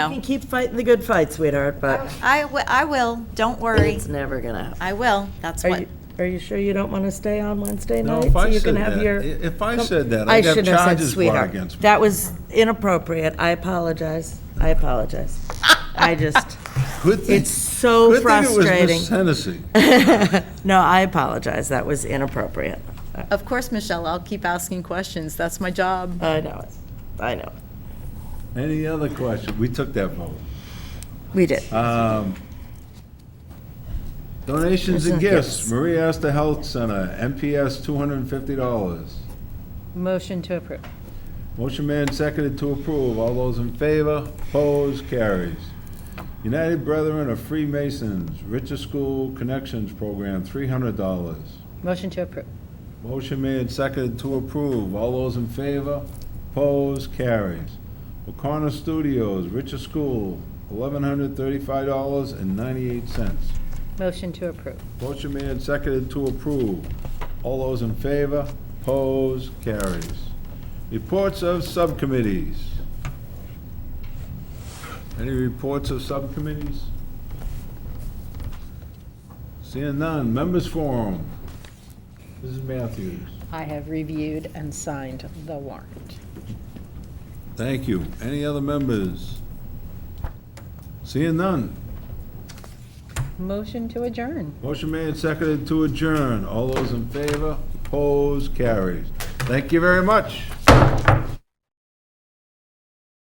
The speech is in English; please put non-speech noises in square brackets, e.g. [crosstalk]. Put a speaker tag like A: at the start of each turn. A: You can keep fighting the good fight, sweetheart, but
B: I, wi- I will, don't worry.
A: it's never gonna happen.
B: I will, that's
A: Are
B: what,
A: you, are you sure you don't want to stay on Wednesday
C: No,
A: night?
C: if I
A: so you
C: said
A: can have
C: that-
A: your-
C: i- if I said that,
A: I
C: I'd have
A: shouldn't have said
C: charges brought
A: sweetheart.
C: against me.
A: That was inappropriate. I apologize. I apologize. [laughs] I just,
C: Good thing-
A: It's so
C: Good thing it was
A: frustrating.
C: Miss
A: [laughs]
C: Hennessy.
A: no, I apologize. That was inappropriate.
B: of course, Michelle, I'll keep asking questions, that's my job.
A: I know it. I know. it.
C: Any other question? We took that vote. Um,
A: We did.
C: Donations and
A: Donations and
C: gifts.
A: gifts.
C: Maria Astor Health Center, MPS, $250.
B: Motion to approve.
C: Motion made and seconded to approve. All those in favor? Opposed? Carries. United Brethren of Freemasons, Richer School Connections Program, $300.
B: Motion to approve.
C: Motion made and seconded to approve. All those in favor? Opposed? Carries. O'Connor Studios, Richer School, $1,135.98.
B: Motion to approve.
C: Motion made and seconded to approve. All those in favor? Opposed? Carries. Reports of subcommittees. Any reports of subcommittees? Seeing none. Members forum. Mrs. Matthews.
D: I have reviewed and signed the warrant.
C: Thank you. Any other members? Seeing none.
D: Motion to adjourn.
C: Motion made and seconded to adjourn. All those in favor? Opposed? Carries. Thank you very much.